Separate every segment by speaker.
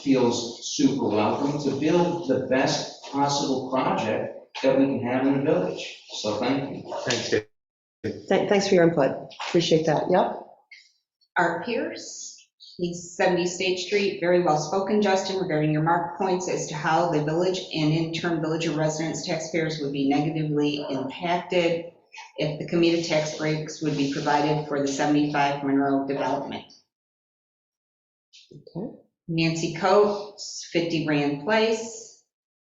Speaker 1: feels super welcome to build the best possible project that we can have in the village. So thank you.
Speaker 2: Thanks, Dave.
Speaker 3: Thank- Thanks for your input. Appreciate that. Yep.
Speaker 4: Art Pierce, he's 70 State Street, very well spoken, Justin, regarding your mark points as to how the village and in turn villager residents, taxpayers would be negatively impacted if the commuter tax breaks would be provided for the 75 Monroe development.
Speaker 3: Okay.
Speaker 4: Nancy Coates, 50 Rand Place,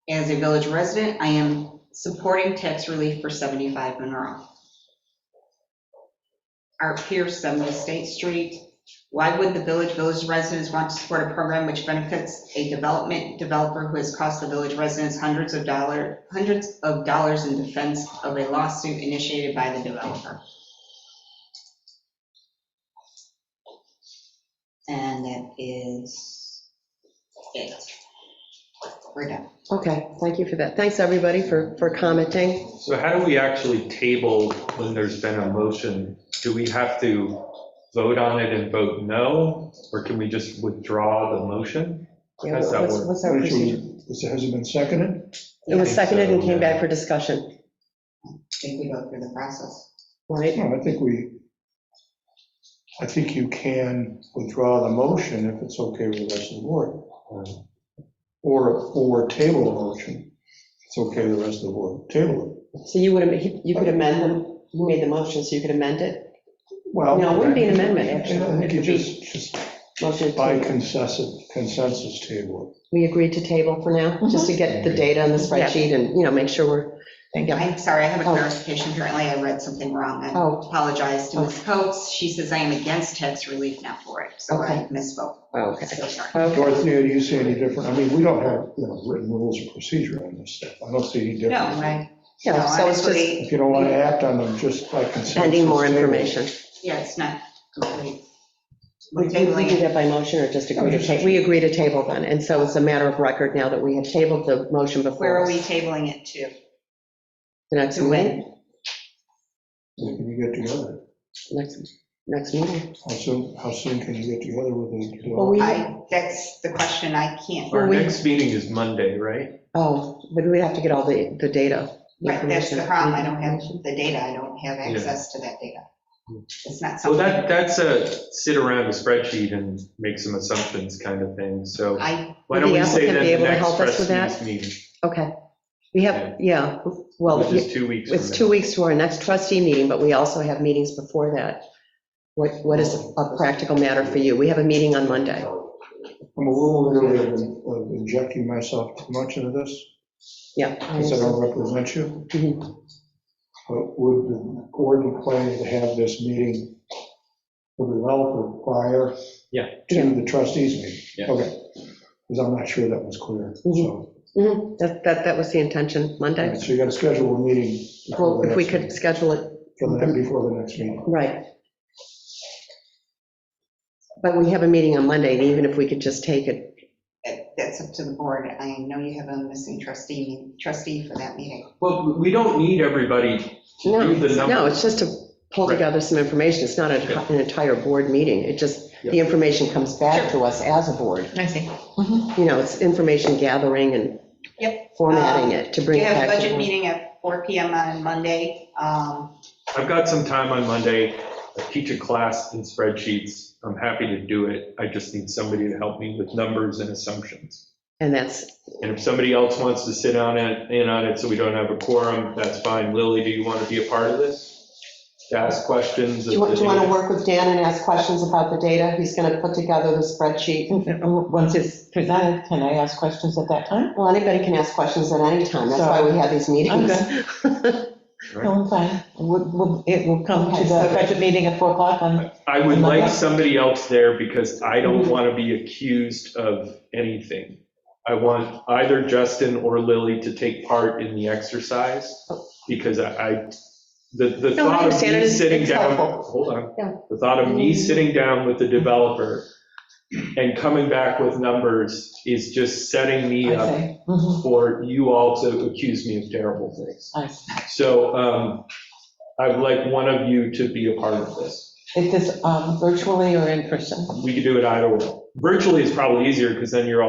Speaker 4: as a village resident, I am supporting tax relief for 75 Monroe. Art Pierce, 70 State Street. Why would the village, village residents want to support a program which benefits a development developer who has cost the village residents hundreds of dollar, hundreds of dollars in defense of a lawsuit initiated by the developer? And that is it. We're done.
Speaker 3: Okay, thank you for that. Thanks, everybody, for, for commenting.
Speaker 2: So how do we actually table when there's been a motion? Do we have to vote on it and vote no, or can we just withdraw the motion?
Speaker 3: Yeah,
Speaker 2: How's that
Speaker 3: What's
Speaker 2: work?
Speaker 3: what's our procedure?
Speaker 5: Which Has it been seconded?
Speaker 3: It was
Speaker 2: I think so,
Speaker 3: seconded and
Speaker 2: yeah.
Speaker 3: came back for discussion,
Speaker 4: I think we go through the process.
Speaker 3: right?
Speaker 5: No, I think we, I think you can withdraw the motion if it's okay with the rest of the board. Or, or table a motion, if it's okay with the rest of the board, table it.
Speaker 3: So you would, am- you could amend them, you made the motion, so you could amend it.
Speaker 5: Well,
Speaker 3: No, it wouldn't be an amendment, actually.
Speaker 5: I think you just, just
Speaker 3: Motion to
Speaker 5: by
Speaker 3: table.
Speaker 5: consensus, consensus table.
Speaker 3: We agreed to table for now,
Speaker 4: Mm-hmm.
Speaker 3: just to get the data on the spreadsheet and, you know, make sure we're, yeah.
Speaker 4: I'm sorry, I have a
Speaker 3: Oh.
Speaker 4: clarification. Apparently I read something wrong. I
Speaker 3: Oh,
Speaker 4: apologize to Ms. Coates. She says I am against tax relief now for it, so I misspoke.
Speaker 3: oh, okay.
Speaker 4: So sorry.
Speaker 3: Okay.
Speaker 5: Dorothea, do you see any different? I mean, we don't have, you know, written rules of procedure on this stuff. I don't see any
Speaker 4: No,
Speaker 5: difference.
Speaker 4: I, no,
Speaker 3: Yeah, so it's just
Speaker 4: honestly,
Speaker 5: If you don't want to act on them, just by consensus.
Speaker 3: pending more
Speaker 5: table it.
Speaker 3: information.
Speaker 4: yeah, it's not complete.
Speaker 3: We
Speaker 4: We're
Speaker 3: we do
Speaker 4: tabling, Oh,
Speaker 3: that by motion or just agree to
Speaker 5: just-
Speaker 3: table? We agree to table then, and so it's a matter of record now that we have tabled the motion before.
Speaker 4: where are
Speaker 3: us.
Speaker 4: we tabling it to?
Speaker 3: The next
Speaker 4: To when?
Speaker 3: meeting,
Speaker 5: When Can you get together?
Speaker 3: next, next meeting.
Speaker 5: How soon, how soon can you get together with the
Speaker 3: Well, we-
Speaker 5: developer?
Speaker 4: I, that's the question I can't,
Speaker 2: Our
Speaker 3: we-
Speaker 2: next meeting is Monday, right?
Speaker 3: Oh, but we have to get all the, the data.
Speaker 4: right, that's the
Speaker 3: information.
Speaker 4: problem, I don't have the data, I don't have access to that data. It's
Speaker 2: Mm.
Speaker 4: not
Speaker 2: Well,
Speaker 4: something.
Speaker 2: that, that's a sit around a spreadsheet and make some assumptions kind of thing, so
Speaker 4: I,
Speaker 2: why
Speaker 3: Would
Speaker 2: don't
Speaker 3: the
Speaker 2: we say
Speaker 3: applicant
Speaker 2: then
Speaker 3: be able
Speaker 2: the
Speaker 3: to
Speaker 2: next
Speaker 3: help us with
Speaker 2: trustees meeting?
Speaker 3: Okay, we have, yeah, well,
Speaker 2: Which is two weeks from
Speaker 3: it's
Speaker 2: now.
Speaker 3: two weeks to our next trustee meeting, but we also have meetings before that. What, what is a practical matter for you? We have a meeting on Monday.
Speaker 5: I'm a little weary of of injecting myself too much into this,
Speaker 3: Yeah. I
Speaker 5: because I
Speaker 3: understand.
Speaker 5: don't represent you.
Speaker 3: Mhm.
Speaker 5: But would the board plan to have this meeting with the developer prior?
Speaker 2: Yeah.
Speaker 5: To the trustees meeting?
Speaker 2: Yeah.
Speaker 5: Okay, because I'm not sure that was clear, so.
Speaker 3: Mhm. That, that, that was the intention,
Speaker 5: all
Speaker 3: Monday.
Speaker 5: right, So you got to schedule a meeting. before
Speaker 3: Well,
Speaker 5: the
Speaker 3: if we
Speaker 5: next
Speaker 3: could
Speaker 5: meeting,
Speaker 3: schedule it
Speaker 5: for the- Before the next meeting.
Speaker 3: Right. But we have a meeting on Monday, and even if we could just take it,
Speaker 4: that's up to the board, I know you have a missing trustee, trustee for that meeting.
Speaker 2: Well, we don't need everybody to
Speaker 3: no,
Speaker 2: do the
Speaker 3: no,
Speaker 2: numbers.
Speaker 3: it's just to pull
Speaker 2: Right.
Speaker 3: together some information. It's not a- an entire board meeting. It just, the information comes back to us as a board.
Speaker 4: I see.
Speaker 3: You know, it's information gathering and
Speaker 4: Yep.
Speaker 3: formatting it to bring
Speaker 4: We
Speaker 3: it
Speaker 4: have
Speaker 3: back
Speaker 4: a
Speaker 3: to the
Speaker 4: budget
Speaker 3: board.
Speaker 4: meeting at 4 PM on Monday, um,
Speaker 2: I've got some time on Monday. I teach a class in spreadsheets. I'm happy to do it. I just need somebody to help me with numbers and assumptions.
Speaker 3: And that's,
Speaker 2: And if somebody else wants to sit on it, in on it, so we don't have a quorum, that's fine. Lily, do you want to be a part of this? To ask questions?
Speaker 3: do
Speaker 2: of
Speaker 3: you want
Speaker 2: the
Speaker 3: to
Speaker 2: data?
Speaker 3: work with Dan and ask questions about the data? He's going to put together the spreadsheet.
Speaker 6: Once it's presented, can I ask questions at that time?
Speaker 3: Well, anybody can ask questions at any time. That's why we have these meetings.
Speaker 6: No, I'm fine. We'll- we'll- It will come to the budget meeting at 4 o'clock on,
Speaker 2: I would like somebody else there because I
Speaker 3: Mm-hmm.
Speaker 2: don't want to be accused of anything. I want either Justin or Lily to take part in the exercise because I, I- the, the
Speaker 3: No, I
Speaker 2: thought of
Speaker 3: understand. It
Speaker 2: me
Speaker 3: is-
Speaker 2: sitting
Speaker 3: it's
Speaker 2: down,
Speaker 3: helpful.
Speaker 2: hold
Speaker 3: Yeah. Mm-hmm.
Speaker 2: on. The thought of me sitting down with the developer and coming back with numbers is just setting me
Speaker 6: I
Speaker 2: up
Speaker 6: say.
Speaker 3: Mm-hmm.
Speaker 6: Mhm,
Speaker 2: for you all to accuse me of terrible things.
Speaker 6: I see.
Speaker 2: So um, I would like one of you to be a part of this.
Speaker 6: Is this um, virtually or in person?
Speaker 2: We could do it either way. Virtually is probably easier because then you're all.